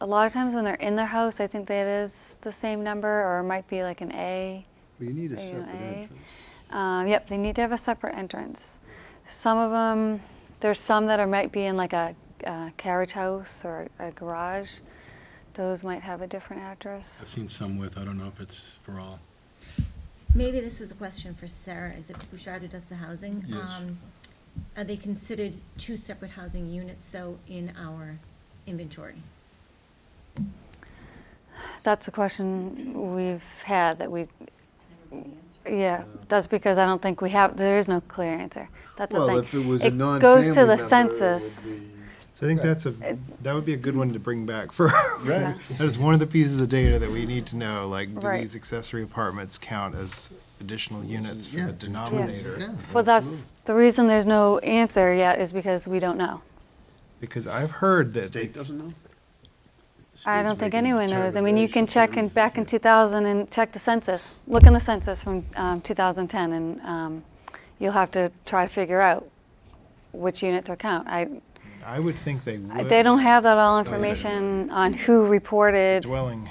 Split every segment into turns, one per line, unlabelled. a lot of times when they're in their house, I think that is the same number, or it might be like an A.
Well, you need a
Are you
separate
an A?
entrance.
Um, yep, they need to have a separate entrance. Some of them, there's some that are, might be in like a, uh carriage house or a garage. Those might have a different
I've
address.
seen some with, I don't know if it's for all.
Maybe this is a question for Sarah, is it Bouchard who does the housing?
Yes.
Um, Are they considered two separate housing units, though, in our inventory?
That's a question we've had that we,
It's never been answered.
yeah, that's because I don't think we have, there is no clear answer. That's the thing.
Well, if it was a non-family
goes to
member,
the
it would
census.
be-
So I think
Right.
that's a, that would be a good one to bring back for,
Right.
that is one of the pieces of data that we need to know, like, do
Right.
these accessory apartments count as additional units for
Yeah,
the
to- to-
denominator?
yeah,
Well, that's,
absolutely.
the reason there's no answer yet is because we don't know.
Because I've heard that, they-
State doesn't know?
I
State's
don't think
making
anyone knows. I mean, you can
determinations
check
on
in,
it.
back in 2000 and check the census. Look in the census from um, 2010, and um, you'll have to try to figure out which units are count. I,
I would think they
I-
would.
Uh, they don't have that all
know that
information on who reported.
Dwelling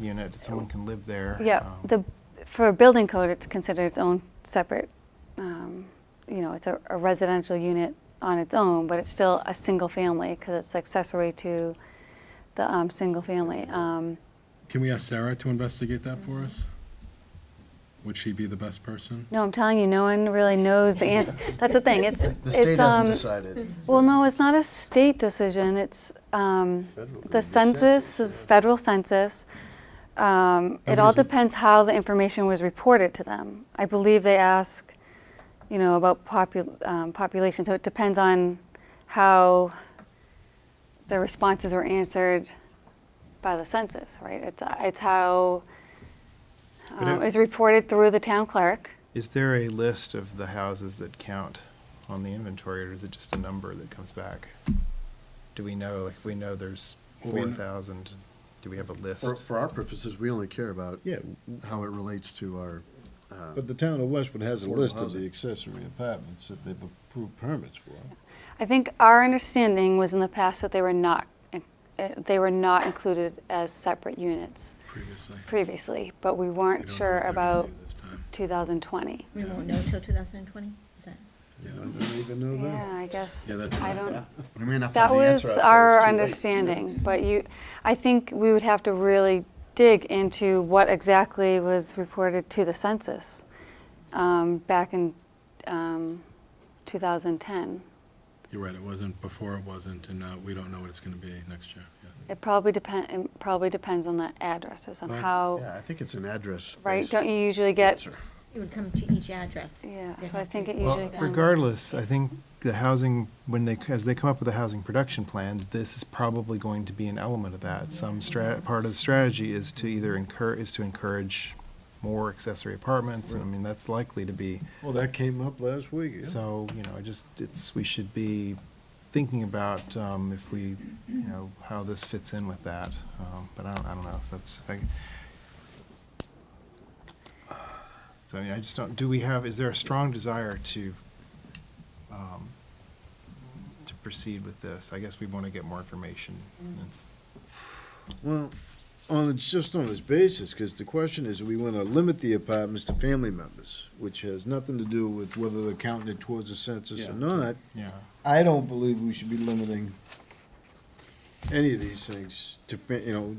unit, that someone can live there.
Yeah,
um,
the, for a building code, it's considered its own separate, um, you know, it's a a residential unit on its own, but it's still a single family because it's accessory to the um, single family. Um,
Can we ask Sarah to investigate that for us?
Mm-hmm.
Would she be the best person?
No, I'm telling you, no one really knows the answer. That's the thing, it's,
The state
it's, um,
hasn't decided.
well, no, it's not a state decision, it's, um,
Federal,
the
the
census
census,
is federal census. Um, it all
Everything.
depends how the information was reported to them. I believe they ask, you know, about popu- um, population, so it depends on how the responses were answered by the census, right? It's, it's how,
But
um,
it-
is reported through the town clerk.
Is there a list of the houses that count on the inventory, or is it just a number that comes back? Do we know, like, if we know there's
Well, we kn-
four thousand, do we have a list?
For, for our purposes, we only care about
Yeah,
how it relates to our. uh,
but the town of Westwood has a
Affordable
list of
housing.
the accessory apartments that they've approved permits for.
I think our understanding was in the past that they were not, in- uh, they were not included as separate units
Previously.
previously, but we
We
weren't
don't know
sure
what they're gonna
about
do this time.
2020.
We won't know till 2020, is that?
Yeah.
I don't even know
Yeah,
that.
I guess,
Yeah, that's
I
right.
don't,
I mean, I
that was our understanding, but you, I think we would have to really dig into what exactly was reported to the census um, back in um, 2010.
You're right, it wasn't, before it wasn't, and now we don't know what it's gonna be next year. yeah.
It probably depend, it probably depends on the addresses, on how
Yeah, I think it's an address.
Right, don't you usually get,
It would come to each address.
yeah,
They'd
so I
have to
think it
report
usually
that.
comes.
Regardless, I think the housing, when they, as they come up with a housing production plan, this is probably going to be an element of that. Some strat, part of the strategy is to either incur, is to encourage more accessory apartments, and I mean, that's likely to be.
Well, that came up last week, yeah.
So, you know, I just, it's, we should be thinking about um, if we, you know, how this fits in with that. Um, But I don't, I don't know if that's, I- so I mean, I just don't, do we have, is there a strong desire to, um, to proceed with this? I guess we want to get more information. It's-
Well, on, it's just on this basis, because the question is, we want to limit the apartments to family members, which has nothing to do with whether they're counting it towards the census
Yeah.
or not.
Yeah,
I don't believe we should be limiting any of these things to, fa- you know,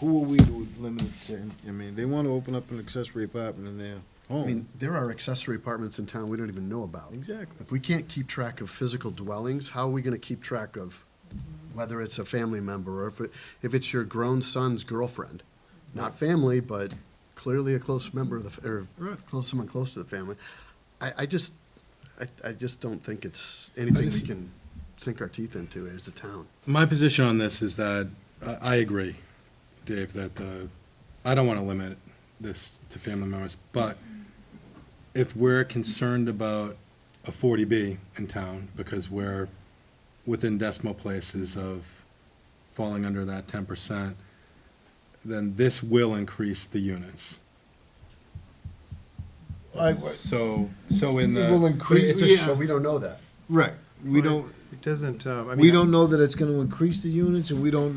who are we to limit it to? I mean, they want to open up an accessory apartment in their
I mean,
home.
there are accessory apartments in town we don't even know about.
Exactly.
If we can't keep track of physical dwellings, how are we gonna keep track of whether it's a family member or if it, if it's your grown son's girlfriend? Not family, but clearly a close member of the, f- or close, someone close to the family. I, I just, I, I just don't think it's anything we can sink our teeth into as a town.
My position on this is that, I, I agree, Dave, that, uh, I don't wanna limit this to family members, but if we're concerned about a forty B in town, because we're within decimal places of falling under that ten percent, then this will increase the units.
I-
So, so in the.
It will
but
increase-
it's a
yeah.
sh-
So we don't know that.
Right, we don't,
it doesn't, uh, I mean.
we don't know that it's going to increase the units, and we don't